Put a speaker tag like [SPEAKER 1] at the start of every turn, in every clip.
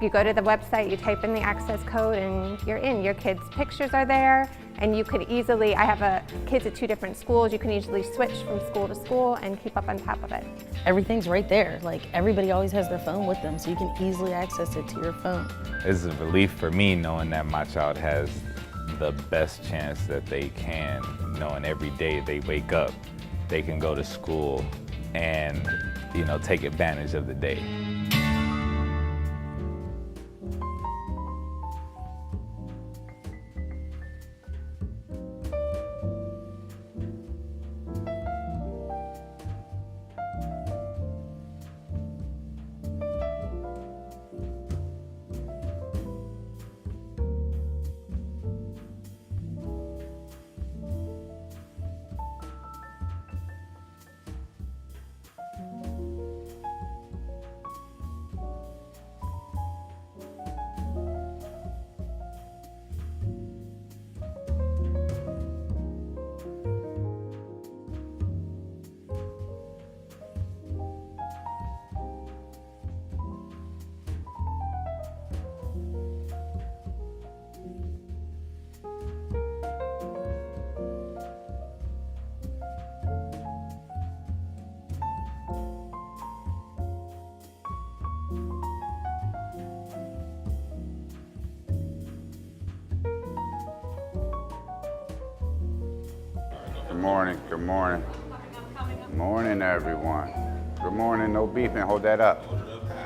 [SPEAKER 1] You go to the website, you type in the access code, and you're in. Your kids' pictures are there, and you could easily, I have a, kids at two different schools, you can easily switch from school to school and keep up on top of it.
[SPEAKER 2] Everything's right there. Like everybody always has their phone with them, so you can easily access it to your phone.
[SPEAKER 3] It's a relief for me knowing that my child has the best chance that they can, knowing every day they wake up, they can go to school and, you know, take advantage of the day.
[SPEAKER 4] Good morning, good morning. Morning, everyone. Good morning, no beeping, hold that up.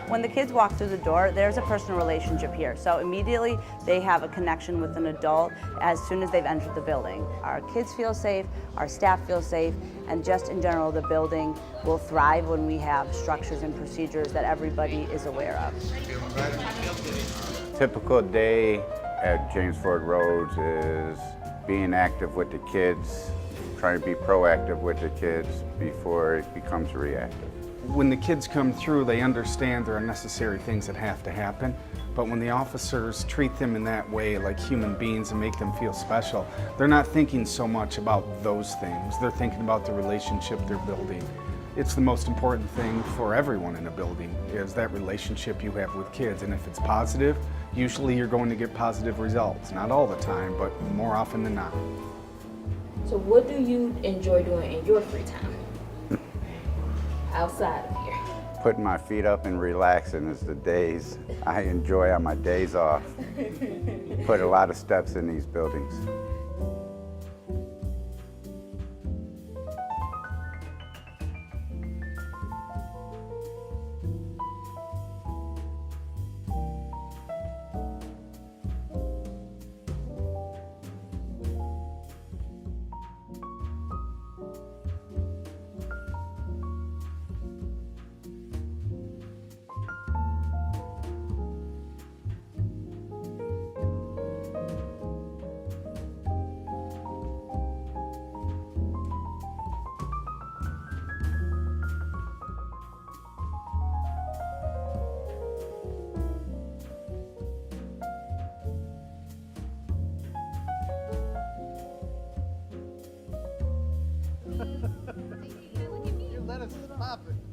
[SPEAKER 5] When the kids walk through the door, there's a personal relationship here. So immediately they have a connection with an adult as soon as they've entered the building. Our kids feel safe, our staff feel safe, and just in general, the building will thrive when we have structures and procedures that everybody is aware of.
[SPEAKER 4] Typical day at James Ford Roads is being active with the kids, trying to be proactive with the kids before it becomes reactive.
[SPEAKER 6] When the kids come through, they understand there are necessary things that have to happen. But when the officers treat them in that way, like human beings, and make them feel special, they're not thinking so much about those things. They're thinking about the relationship they're building. It's the most important thing for everyone in a building is that relationship you have with kids. And if it's positive, usually you're going to get positive results. Not all the time, but more often than not.
[SPEAKER 7] So what do you enjoy doing in your free time? Outside of here.
[SPEAKER 4] Putting my feet up and relaxing is the days I enjoy on my days off. Put a lot of steps in these buildings.
[SPEAKER 8] Let us pop it.